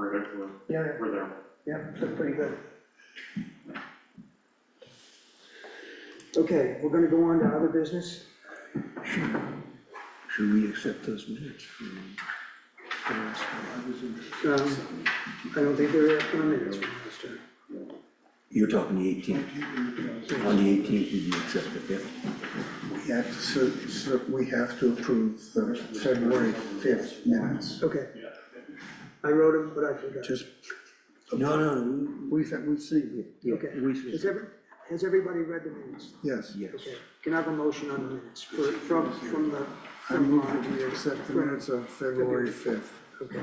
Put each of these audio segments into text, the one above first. we're, we're, Yeah, we're there. yeah, yeah, that's pretty good. Okay, we're gonna go on to other business. Should we accept those minutes from the last time I was in? Um, I don't think there are comments from last time. You're talking the eighteenth, on the eighteenth, did you accept the fifth? We have to, so, so we have to approve the February fifth minutes. Okay. I wrote them, but I forgot. Just, No, no, we, we see, we, Okay. yeah, we, Has every, has everybody read the minutes? yes. yes. Okay, can I have a motion on the minutes for, from, from the, I from, move uh, that we accept the minutes of February fifth. okay,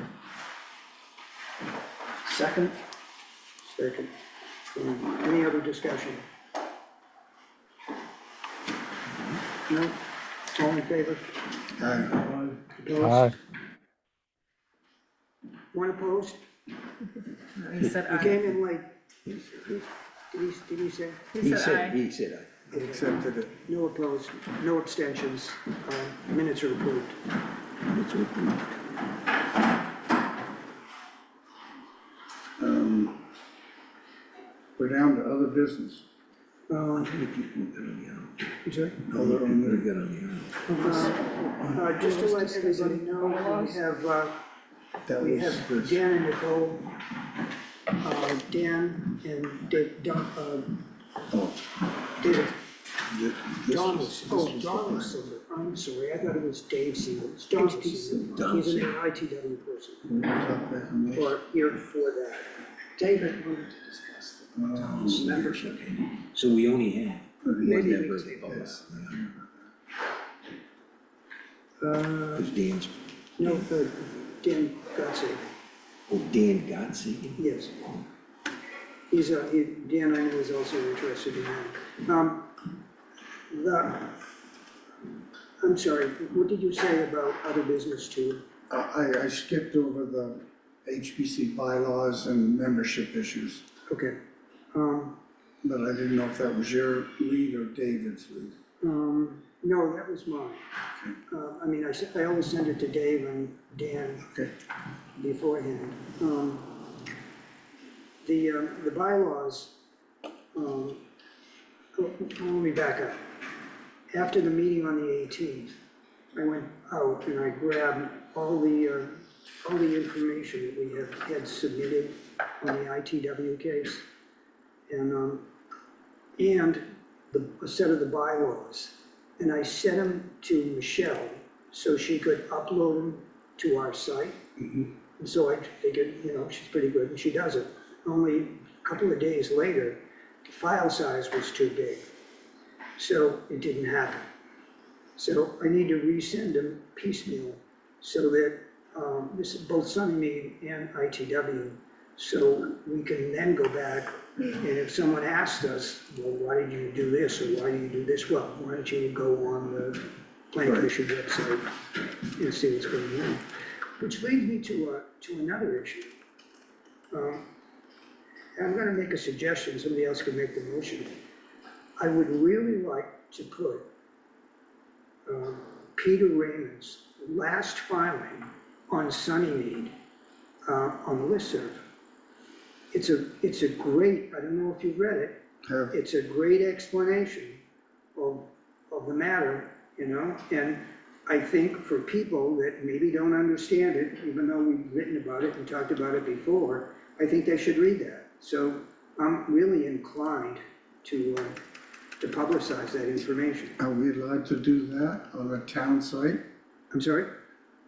Second? second. Um, Any other discussion? No? All in favor? Aye. Opposed? One opposed? He said You aye. came in late, He did he, did he say? He said, said aye. he said aye. Accepted it. No opposed, no abstentions, uh, minutes are approved. It's approved. Um, We're down to other business. Uh, We did- we got on the I'm sorry? Other island. We on got on the island. Uh, uh, Just to let everybody know, we have, uh, the, that We was have this. Dan and Nicole, uh, Dan and Dave, Don, uh, Oh, David, thi- this Don was- was, this oh, was Don was the Silver, I'm sorry, I thought it was Dave Silver, it's Don Silver. Don He's an Silver. ITW person, plan. We talked back on this. or here for that. David wanted to discuss Oh, the membership. So we only had one Maybe member we of the take public. this. Uh, Because Dan's, no, uh, Dan Gottsay, oh, Dan Gottsy. yes. He's, uh, he- Dan, I know is also interested in that. Um, the, I'm sorry, what did you say about other business too? I, I- I skipped over the HPC bylaws and membership issues, Okay, um, but I didn't know if that was your lead or David's lead. um, no, that was mine. Uh, I mean, I, s- I always send it to Dave and Dan Okay. beforehand. Um, the, uh, the bylaws, um, oh, let me back up. After the meeting on the eighteenth, I went out and I grabbed all the, uh, all the information that we have, had submitted on the ITW case. And, um, and the, a set of the bylaws. And I sent them to Michelle so she could upload them to our site. And so I figured, you know, she's pretty good and she does it. Only a couple of days later, the file size was too big. So it didn't happen. So I need to resend them piecemeal so that, um, this is both Sunnymead and ITW. So we can then go back and if someone asked us, well, why did you do this or why do you do this? Well, why don't you go on the planning commission website and see what's going on? Which leads me to, uh, to another issue. Um, I'm gonna make a suggestion, somebody else can make the motion. I would really like to put, um, Peter Raymond's last filing on Sunnymead, uh, on the listserv. It's a, it's a great, I don't know if you've read it, Have- it's a great explanation of, of the matter, you know? And I think for people that maybe don't understand it, even though we've written about it and talked about it before, I think they should read that. So I'm really inclined to, uh, to publicize that information. Are we allowed to do that on a town site? I'm sorry?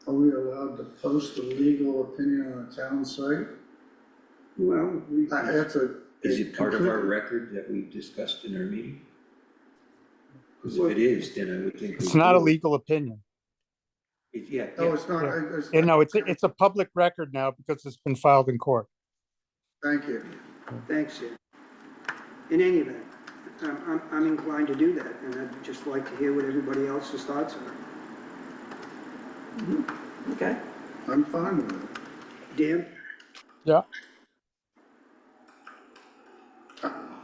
Are we allowed to post a legal opinion on a town site? Well, we- That- That's a. Is it part of our record that we've discussed in our meeting? Because if it is, then I would think. we It's not a do. legal opinion. If- Yeah, No, yeah, it's not, I- it's. You know, it's, it's a public record now because it's been filed in court. Thank you. Thanks, Sid. In any event, I'm, I'm- I'm inclined to do that, and I'd just like to hear what everybody else's thoughts are. Okay. I'm fine with it. Dan? Yeah.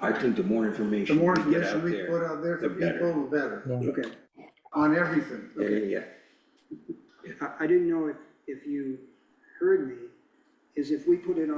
I think the more The information. more we get information out we there, put out there for the better. people, the better, Yeah. Okay. on everything. Yeah, yeah, I, I didn't know if, if you heard me, is if we put it on.